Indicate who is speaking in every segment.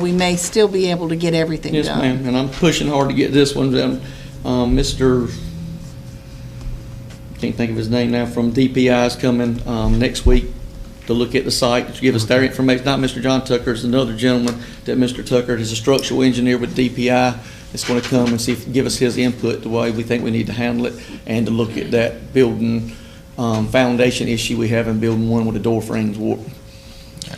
Speaker 1: we may still be able to get everything done.
Speaker 2: Yes, ma'am, and I'm pushing hard to get this one done. Um, Mr., can't think of his name now, from DPI is coming, um, next week to look at the site, to give us their information. Not Mr. John Tucker, it's another gentleman that Mr. Tucker is a structural engineer with DPI. Is gonna come and see, if give us his input, the way we think we need to handle it, and to look at that building, um, foundation issue we have in building one with the door frames warped.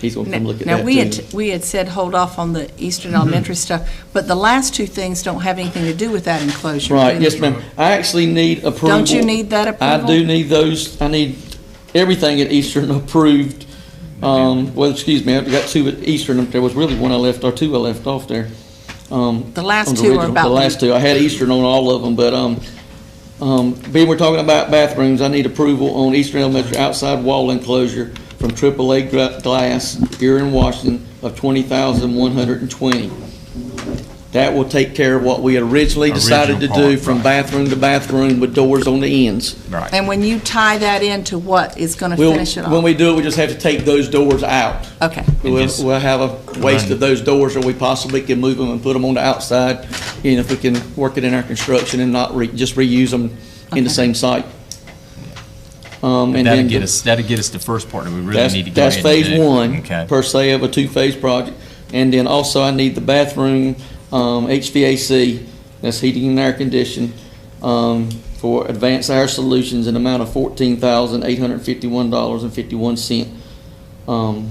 Speaker 2: He's gonna come look at Mm-hmm. that
Speaker 1: Now, we had,
Speaker 2: too.
Speaker 1: we had said hold off on the Eastern Elementary stuff, but the last two things don't have anything to do with that enclosure.
Speaker 2: Right,
Speaker 1: do
Speaker 2: yes,
Speaker 1: they?
Speaker 2: ma'am. I actually need approval.
Speaker 1: Don't you need that
Speaker 2: I
Speaker 1: approval?
Speaker 2: do need those, I need everything at Eastern approved. Um, well, excuse me, I've got two at Eastern, there was really one I left, or two I left off there. Um,
Speaker 1: The last
Speaker 2: on
Speaker 1: two are
Speaker 2: original-
Speaker 1: about
Speaker 2: The
Speaker 1: the-
Speaker 2: last two, I had Eastern on all of them, but, um, um, being we're talking about bathrooms, I need approval on Eastern Elementary outside wall enclosure from AAA gra- glass here in Washington of twenty thousand one hundred and twenty. That will take care of what we originally decided to
Speaker 3: Original
Speaker 2: do
Speaker 3: part,
Speaker 2: from
Speaker 3: right.
Speaker 2: bathroom to bathroom with doors on the ends.
Speaker 3: Right.
Speaker 1: And when you tie that into what is going to
Speaker 2: We'll,
Speaker 1: finish it off?
Speaker 2: when we do it, we just have to take those doors out.
Speaker 1: Okay,
Speaker 2: We'll,
Speaker 3: just
Speaker 2: we'll have a waste
Speaker 3: run.
Speaker 2: of those doors, or we possibly can move them and put them on the outside, you know, if we can work it in our construction and not re, just reuse them in
Speaker 1: Okay.
Speaker 2: the same site. Um, and
Speaker 3: That'll
Speaker 2: then,
Speaker 3: get
Speaker 2: the-
Speaker 3: us, that'll get us the first part that we really
Speaker 2: that's,
Speaker 3: need to go
Speaker 2: that's
Speaker 3: ahead and
Speaker 2: phase
Speaker 3: do.
Speaker 2: one,
Speaker 3: Okay.
Speaker 2: per se, of a two-phase project. And then also, I need the bathroom, um, HVAC, that's heating and air conditioning, um, for Advanced Air Solutions, an amount of fourteen thousand, eight hundred and fifty-one dollars and fifty-one cent. Um,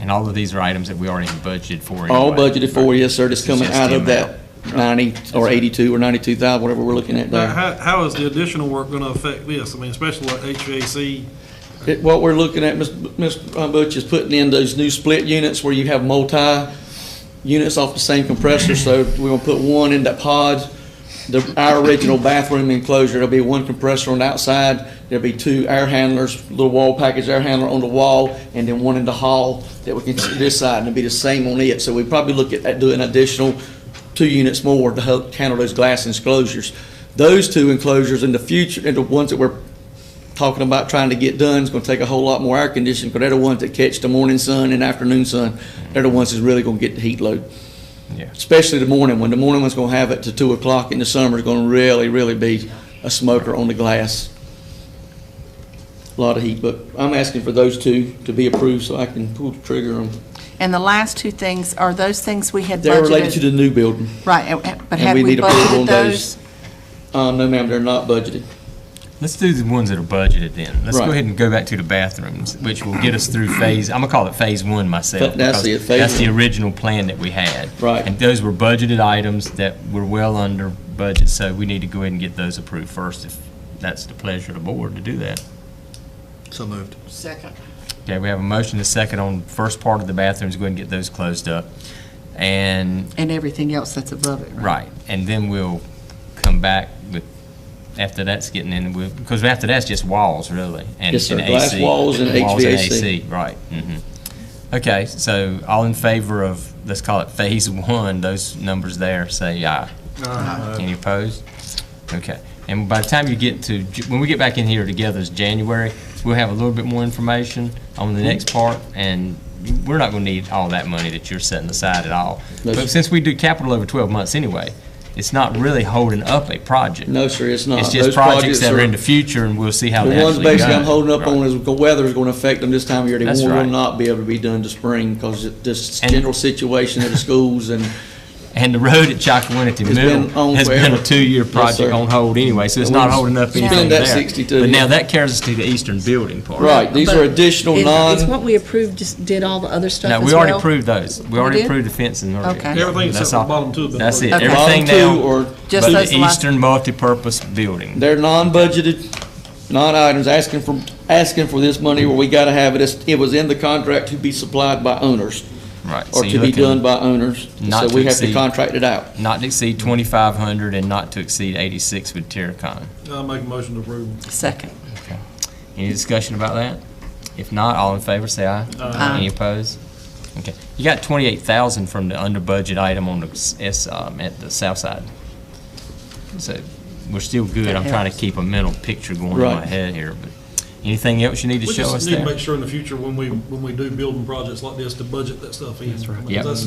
Speaker 3: And all of these are items that we already budgeted for.
Speaker 2: All
Speaker 3: anyway.
Speaker 2: budgeted for, yes, sir, just
Speaker 3: It's
Speaker 2: coming
Speaker 3: just
Speaker 2: out
Speaker 3: the
Speaker 2: of that ninety, or eighty-two, or ninety-two thousand, whatever we're looking at
Speaker 4: Now,
Speaker 2: there.
Speaker 4: how, how is the additional work gonna affect this? I mean, especially like HVAC,
Speaker 2: It- What we're looking at, Ms. B- Ms. Butch, is putting in those new split units where you have multi-units off the same compressor, so we're gonna put one in that pod. The, our original bathroom enclosure, there'll be one compressor on the outside, there'll be two air handlers, little wall package air handler on the wall, and then one in the hall that we can, see this side, and it'll be the same on it, so we probably look at, at doing additional two units more to help handle those glass enclosures. Those two enclosures in the future, and the ones that we're talking about trying to get done, it's gonna take a whole lot more air conditioning, because they're the ones that catch the morning sun and afternoon sun. They're the ones that's really gonna get the heat load,
Speaker 3: Yeah.
Speaker 2: especially the morning one. The morning one's gonna have it to two o'clock in the summer, it's gonna really, really be a smoker on the glass. A Lot of heat, but I'm asking for those two to be approved so I can pull the trigger on,
Speaker 1: And the last two things, are those things we had budgeted?
Speaker 2: they're related to the new building.
Speaker 1: Right, and- and- but
Speaker 2: and
Speaker 1: had
Speaker 2: we
Speaker 1: we
Speaker 2: need approval on
Speaker 1: budgeted
Speaker 2: those.
Speaker 1: those?
Speaker 2: Uh, no ma'am, they're not budgeted.
Speaker 3: Let's do the ones that are budgeted then. Let's go
Speaker 2: Right.
Speaker 3: ahead and go back to the bathrooms, which will get us through phase, I'm gonna call it phase one myself.
Speaker 2: But that's
Speaker 3: because
Speaker 2: it, phase
Speaker 3: That's the
Speaker 2: one.
Speaker 3: original plan that we had.
Speaker 2: Right.
Speaker 3: And those were budgeted items that were well under budget, so we need to go ahead and get those approved first if that's the pleasure of the board to do that.
Speaker 5: So moved.
Speaker 1: Second.
Speaker 3: Okay, we have a motion to second on first part of the bathrooms, go ahead and get those closed up. And
Speaker 1: And everything else that's above it, right?
Speaker 3: Right, and then we'll come back with, after that's getting in, we'll- because after that's just walls, really. and-
Speaker 2: Yes, sir.
Speaker 3: and
Speaker 2: Glass
Speaker 3: AC.
Speaker 2: walls and
Speaker 3: Walls and
Speaker 2: HVAC.
Speaker 3: AC, right, mhm. Okay, so all in favor of, let's call it phase one, those numbers there, say aye. Any opposed? Okay, and by the time you get to, Ju- when we get back in here together, it's January, we'll have a little bit more information on the next part, and we're not gonna need all that money that you're setting aside at all.
Speaker 2: No, sir.
Speaker 3: But since we do capital over twelve months anyway, it's not really holding up a project.
Speaker 2: No, sir, it's not.
Speaker 3: It's just
Speaker 2: Those
Speaker 3: projects that are
Speaker 2: are-
Speaker 3: in the future, and we'll see how they
Speaker 2: The ones
Speaker 3: actually go.
Speaker 2: basically I'm holding up
Speaker 3: Right.
Speaker 2: on is the weather's gonna affect them this time of year. They
Speaker 3: That's
Speaker 2: will will
Speaker 3: right.
Speaker 2: not be able to be done to spring because this
Speaker 3: And-
Speaker 2: general situation of the schools and
Speaker 3: And the road at Chakawinity
Speaker 2: been
Speaker 3: Middle
Speaker 2: on
Speaker 3: has been
Speaker 2: forever.
Speaker 3: a two-year
Speaker 2: Yes,
Speaker 3: project
Speaker 2: sir.
Speaker 3: on hold anyway, so it's
Speaker 2: And
Speaker 3: not
Speaker 2: we've
Speaker 3: holding up
Speaker 2: spent
Speaker 3: anything there.
Speaker 2: that 62,
Speaker 3: But now
Speaker 2: yeah.
Speaker 3: that carries us to the eastern building part.
Speaker 2: Right, these are additional
Speaker 1: Is-
Speaker 2: non.
Speaker 1: Is what we approved, just did all the other stuff
Speaker 3: No,
Speaker 1: as
Speaker 3: we already
Speaker 1: well?
Speaker 3: approved those. We already
Speaker 1: did?
Speaker 3: approved the fencing. already.
Speaker 1: Okay.
Speaker 4: Everything except
Speaker 3: That's
Speaker 4: the
Speaker 3: all-
Speaker 4: bottom two have been
Speaker 3: That's it,
Speaker 1: approved. Okay.
Speaker 3: everything
Speaker 2: Bottom two
Speaker 3: now,
Speaker 2: or-
Speaker 1: Just
Speaker 3: but
Speaker 1: those
Speaker 3: the
Speaker 1: last-
Speaker 3: eastern multipurpose building.
Speaker 2: They're non-budgeted, non-items, asking for, asking for this money where we gotta have it. It's- It was in the contract to be supplied by owners.
Speaker 3: Right, so
Speaker 2: Or to
Speaker 3: you're
Speaker 2: be
Speaker 3: looking-
Speaker 2: done by owners.
Speaker 3: Not
Speaker 2: So
Speaker 3: to
Speaker 2: we have to
Speaker 3: exceed-
Speaker 2: contract it out.
Speaker 3: Not to exceed twenty-five hundred and not to exceed eighty-six with Terracon.
Speaker 4: I make a motion to approve.
Speaker 1: Second.
Speaker 3: Any discussion about that? If not, all in favor, say aye.
Speaker 1: Aye.
Speaker 3: Any opposed? Okay. You got twenty-eight thousand from the under-budget item on the s- S, um, at the south side. So we're still good.
Speaker 1: That
Speaker 3: I'm trying to
Speaker 1: helps.
Speaker 3: keep a mental picture going in my
Speaker 2: Right.
Speaker 3: head here, but Anything else you need to
Speaker 4: We
Speaker 3: show us
Speaker 4: just need to
Speaker 3: there?
Speaker 4: make sure in the future, when we, when we do building projects like this, to budget that stuff in. That's
Speaker 3: Yep.